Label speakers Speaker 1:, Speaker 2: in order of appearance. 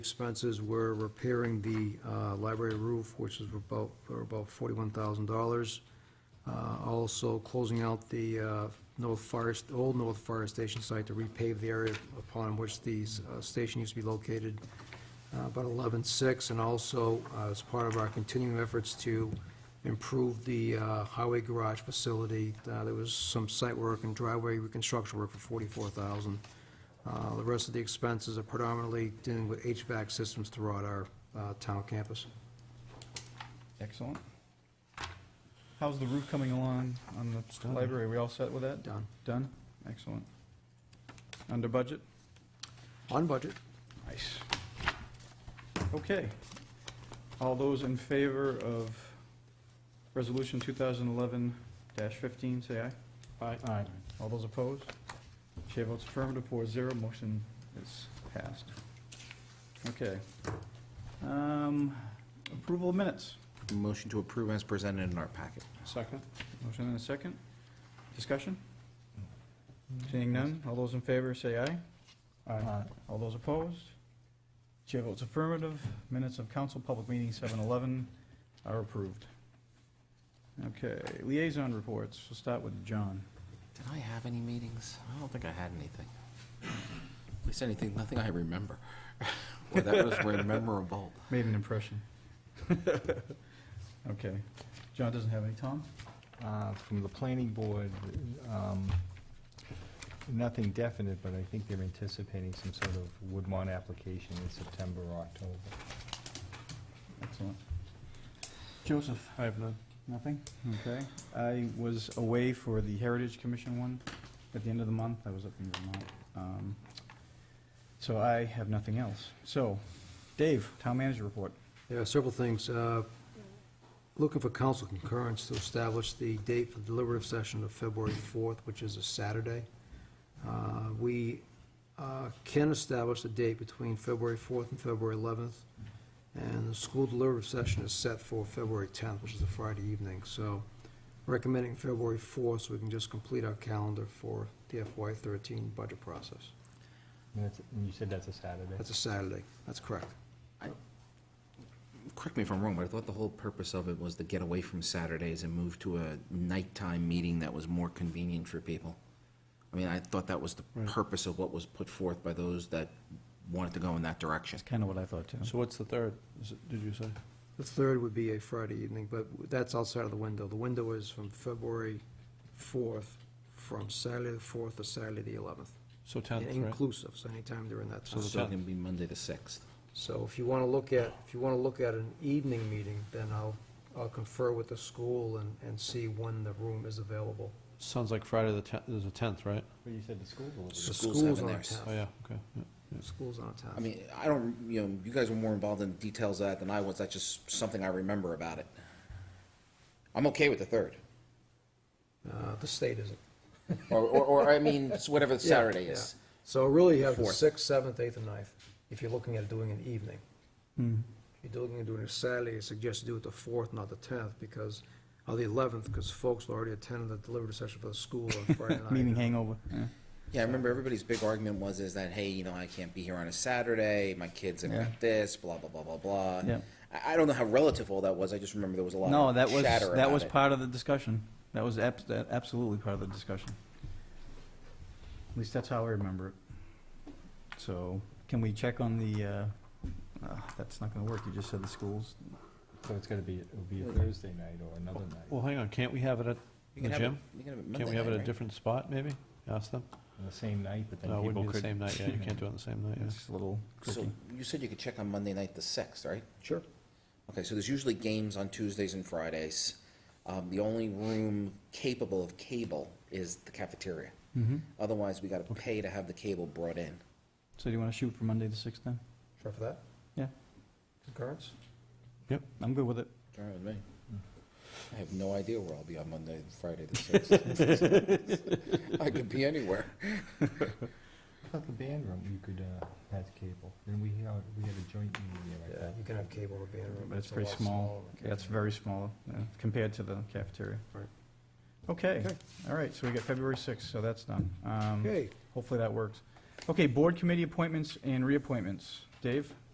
Speaker 1: Expenses were repairing the uh, library roof, which is about, for about forty-one thousand dollars. Uh, Also closing out the uh, North Fire, St- Old North Fire Station site to repave the area upon which the uh, station used to be located, uh, about eleven-six, and also uh, as part of our continuing efforts to improve the uh, highway garage facility, uh, there was some site work and driveway reconstruction work for forty-four thousand. Uh, The rest of the expenses are predominantly dealing with HVAC systems throughout our uh, town campus.
Speaker 2: Excellent. How's the roof coming along on the
Speaker 1: done.
Speaker 2: library? We all set with that?
Speaker 1: Done.
Speaker 2: Done? Excellent. Under budget?
Speaker 1: On budget.
Speaker 2: Nice. Okay. All those in favor of Resolution 2011-15, say aye. Aye.
Speaker 3: Aye.
Speaker 2: All those opposed? Chair votes affirmative, four zero, motion is passed. Okay. Um, Approval of minutes.
Speaker 3: Motion to approve as presented in our packet.
Speaker 2: Second. Motion and a second. Discussion? Seeing none, all those in favor say aye. Aye. All those opposed? Chair votes affirmative. Minutes of council public meeting 711 are approved. Okay, liaison reports. We'll start with John.
Speaker 3: Did I have any meetings? I don't think I had anything. At least anything, nothing I remember. Well, that was very memorable.
Speaker 2: Made an impression. Okay. John doesn't have any. Tom?
Speaker 4: uh, from the planning board, um, nothing definite, but I think they're anticipating some sort of Woodmont application in September or October.
Speaker 2: Excellent. Joseph? I have none. Nothing? Okay. I was away for the Heritage Commission one at the end of the month. I was up in Vermont. Um, So I have nothing else. So, Dave, town manager report.
Speaker 1: There are several things. Uh, Looking for council concurrence to establish the date for the deliberative session of February 4th, which is a Saturday. Uh, We uh, can establish the date between February 4th and February 11th, and the school deliberative session is set for February 10th, which is a Friday evening. So recommending February 4th, so we can just complete our calendar for the FY13 budget process.
Speaker 4: And that's- and you said that's a Saturday?
Speaker 1: That's a Saturday. That's correct.
Speaker 3: Correct me if I'm wrong, but I thought the whole purpose of it was to get away from Saturdays and move to a nighttime meeting that was more convenient for people. I mean, I thought that was the
Speaker 2: Right.
Speaker 3: purpose of what was put forth by those that wanted to go in that direction.
Speaker 2: That's kind of what I thought, too.
Speaker 5: So what's the third, is it- did you say?
Speaker 1: The third would be a Friday evening, but that's outside of the window. The window is from February 4th, from Saturday the 4th to Saturday the 11th,
Speaker 5: So 10th, right?
Speaker 1: inclusive, so anytime during that
Speaker 3: So
Speaker 1: time.
Speaker 3: it's
Speaker 5: the
Speaker 3: going to be Monday the 6th.
Speaker 1: So if you want to look at, if you want to look at an evening meeting, then I'll, I'll confer with the school and, and see when the room is available.
Speaker 5: Sounds like Friday the 10th, there's a 10th, right?
Speaker 4: But you said the school
Speaker 1: The
Speaker 4: delivered.
Speaker 3: So- schools have
Speaker 1: school's
Speaker 3: in
Speaker 1: on a
Speaker 3: theirs.
Speaker 1: task.
Speaker 5: Oh, yeah, okay. yeah.
Speaker 1: School's on a task.
Speaker 3: I mean, I don't, you know, you guys were more involved in details of that than I was. That's just something I remember about it. I'm okay with the third,
Speaker 1: Uh, The state isn't.
Speaker 3: or, or, or I mean, it's whatever
Speaker 1: Yeah,
Speaker 3: Saturday
Speaker 1: yeah.
Speaker 3: is.
Speaker 1: So really, you have the
Speaker 3: Fourth.
Speaker 1: 6th, 7th, 8th, and 9th, if you're looking at doing an evening.
Speaker 2: Hmm.
Speaker 1: If you're looking at doing it Saturday, I suggest do it the 4th, not the 10th, because, or the 11th, because folks already attended the deliberative session for the school on Friday night.
Speaker 2: Meeting hangover. yeah.
Speaker 3: Yeah, I remember everybody's big argument was is that hey, you know, I can't be here on a Saturday. My kids have
Speaker 2: Yeah.
Speaker 3: got this, blah blah blah blah blah.
Speaker 2: Yeah.
Speaker 3: I, I don't know how relative all that was. I just remember there was a lot.
Speaker 2: No,
Speaker 3: of
Speaker 2: that was,
Speaker 3: chatter
Speaker 2: that
Speaker 3: about
Speaker 2: was
Speaker 3: it.
Speaker 2: part of the discussion. That was abs- that absolutely part of the discussion. At least that's how I remember it. So, can we check on the, uh, uh, that's not gonna work, you just said the schools.
Speaker 4: So it's gonna be, it'll be a Thursday night or another night.
Speaker 5: Well, hang on, can't we have it at,
Speaker 3: You can
Speaker 5: the
Speaker 3: have it-
Speaker 5: gym?
Speaker 3: you can have it
Speaker 5: can't
Speaker 3: Monday
Speaker 5: we have it
Speaker 3: night,
Speaker 5: at a
Speaker 3: right?
Speaker 5: different spot, maybe? Ask them?
Speaker 4: On the same night, but
Speaker 5: No,
Speaker 4: then
Speaker 5: Uh, it wouldn't
Speaker 4: people
Speaker 5: be the
Speaker 4: could.
Speaker 5: same night, yeah, you can't do it on the same night, yeah.
Speaker 2: It's a little
Speaker 3: So
Speaker 2: tricky.
Speaker 3: you said you could check on Monday night the sixth, right?
Speaker 1: Sure.
Speaker 3: Okay, so there's usually games on Tuesdays and Fridays. Um, the only room capable of cable is the cafeteria.
Speaker 2: Mm-hmm.
Speaker 3: Otherwise, we gotta pay to have the cable brought in.
Speaker 2: So do you wanna shoot for Monday the sixth then?
Speaker 1: Sure for that?
Speaker 2: Yeah.
Speaker 1: Concurrence?
Speaker 2: I'm good with it.
Speaker 3: All right with me. I have no idea where I'll be on Monday, and Friday, the sixth. I could be anywhere.
Speaker 4: I thought the band room, you could, uh, has cable. And we, had- we had a joint meeting there, I
Speaker 1: Yeah,
Speaker 4: thought.
Speaker 1: you can have cable in the band room.
Speaker 2: But it's
Speaker 1: a
Speaker 2: pretty
Speaker 1: lot
Speaker 2: small.
Speaker 1: smaller.
Speaker 2: That's very small uh, compared to the cafeteria.
Speaker 1: Right.
Speaker 2: Okay, all right, so we got February sixth, so that's done. Um,
Speaker 1: Okay,
Speaker 2: Hopefully that works. Okay, board committee appointments and reappointments. Dave?